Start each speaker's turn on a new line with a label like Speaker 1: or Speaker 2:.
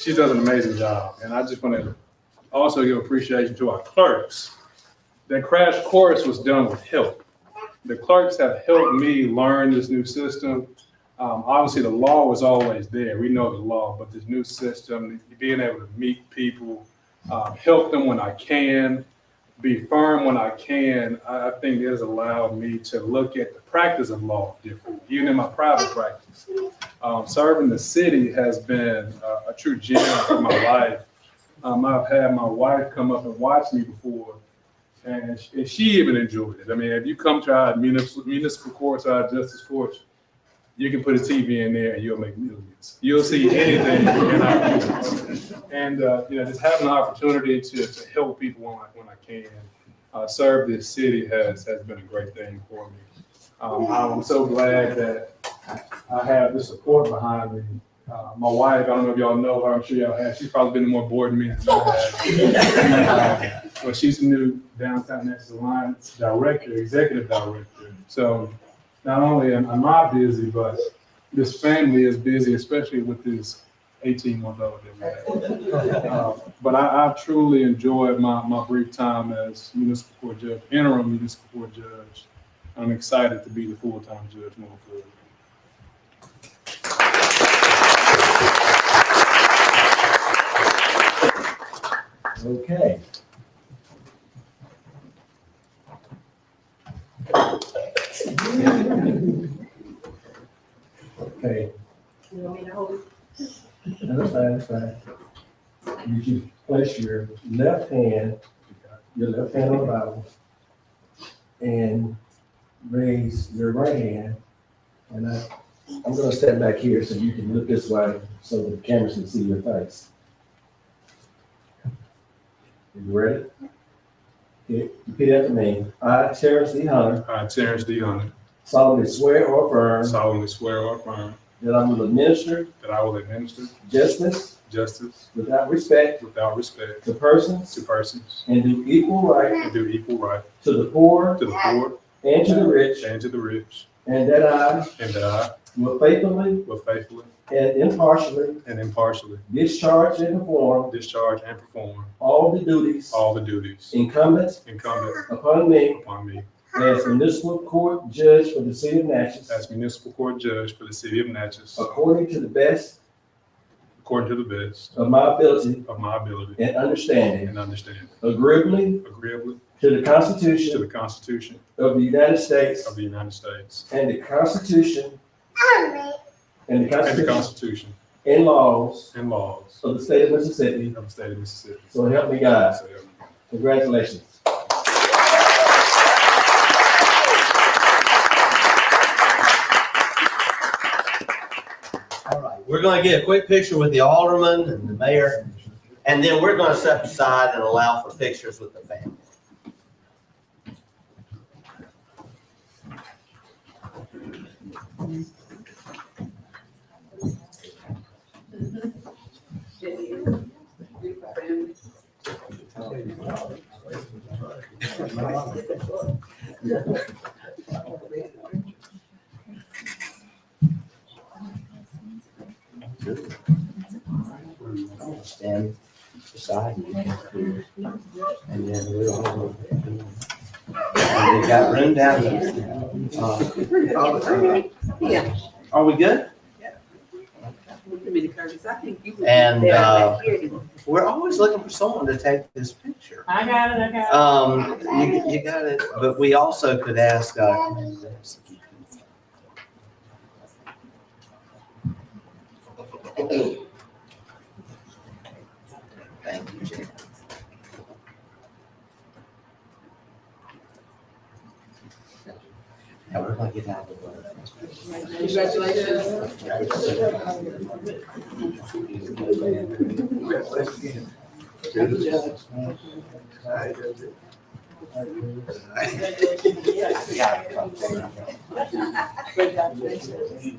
Speaker 1: She does an amazing job. And I just want to also give appreciation to our clerks. That crash course was done with help. The clerks have helped me learn this new system. Um, obviously, the law was always there. We know the law, but this new system, being able to meet people, uh, help them when I can, be firm when I can, I, I think it has allowed me to look at the practice of law differently, even in my private practice. Um, serving the city has been a, a true gem for my life. Um, I've had my wife come up and watch me before, and she, and she even enjoyed it. I mean, if you come to our municipal, municipal courts, our justice courts, you can put a TV in there and you'll make millions. You'll see anything in our courts and uh, you know just having the opportunity to, to help people when I, when I can uh, serve this city has has been a great thing for me. Um, I'm so glad that I have the support behind me. Uh, my wife, I don't know if y'all know her. I'm sure y'all have. She's probably been to more board meetings than I have. Uh, But she's the new Downtown Nexus Alliance Director, Executive Director. So not only am am I busy, but this family is busy, especially with this 18-month old that we have. Uh, But I, I've truly enjoyed my, my brief time as municipal court judge, interim municipal court judge. I'm excited to be the full-time judge moving forward.
Speaker 2: Okay. Okay,
Speaker 3: You want me to hold it?
Speaker 2: that's fine, that's fine. You can place your left hand, your left hand on the Bible, and raise your right hand. And I, I'm gonna step back here so you can look this way, so the camera can see your face. You ready? Okay, Repeat after me. I, Terrence E. Hunter,
Speaker 1: I, Terrence D. Hunter,
Speaker 2: solemnly swear or affirm
Speaker 1: solemnly swear or affirm
Speaker 2: that I will administer
Speaker 1: that I will administer
Speaker 2: justice
Speaker 1: justice
Speaker 2: without respect
Speaker 1: without respect
Speaker 2: to persons
Speaker 1: to persons
Speaker 2: and do equal right
Speaker 1: and do equal right
Speaker 2: to the poor
Speaker 1: to the poor
Speaker 2: and to the rich,
Speaker 1: and to the rich,
Speaker 2: and that I
Speaker 1: and that I
Speaker 2: will faithfully
Speaker 1: will faithfully
Speaker 2: and impartially
Speaker 1: and impartially
Speaker 2: discharge and perform
Speaker 1: discharge and perform
Speaker 2: all the duties
Speaker 1: all the duties
Speaker 2: incumbent
Speaker 1: incumbent
Speaker 2: upon me
Speaker 1: upon me
Speaker 2: as municipal court judge for the city of Natchez,
Speaker 1: as municipal court judge for the city of Natchez,
Speaker 2: according to the best
Speaker 1: according to the best
Speaker 2: of my ability
Speaker 1: of my ability
Speaker 2: and understanding,
Speaker 1: and understanding,
Speaker 2: agreeably
Speaker 1: agreeably
Speaker 2: to the
Speaker 1: to the
Speaker 2: Constitution
Speaker 1: Constitution
Speaker 2: of the United States
Speaker 1: of the United States
Speaker 2: and the Constitution and the
Speaker 1: and the
Speaker 2: Constitution
Speaker 1: Constitution
Speaker 2: and laws
Speaker 1: and laws
Speaker 2: of the state of Mississippi,
Speaker 1: of the state of Mississippi.
Speaker 2: so help me God.
Speaker 1: So help me God.
Speaker 2: Congratulations.
Speaker 4: All right, we're gonna get a quick picture with the alderman and the mayor, and then we're gonna step aside and allow for pictures with the family. Stand beside me. And then we're all. And We got room down there. Uh,
Speaker 3: Yeah.
Speaker 4: Are we good?
Speaker 3: Give me the curtains. I think you would-
Speaker 4: And, uh,
Speaker 3: Back here.
Speaker 4: We're always looking for someone to take this picture.
Speaker 3: I got it, I got
Speaker 4: Um, you, you got it, but we also could ask, uh, thank you, Jay. Now, we're gonna get out of the way.
Speaker 3: it. Congratulations. Congratulations.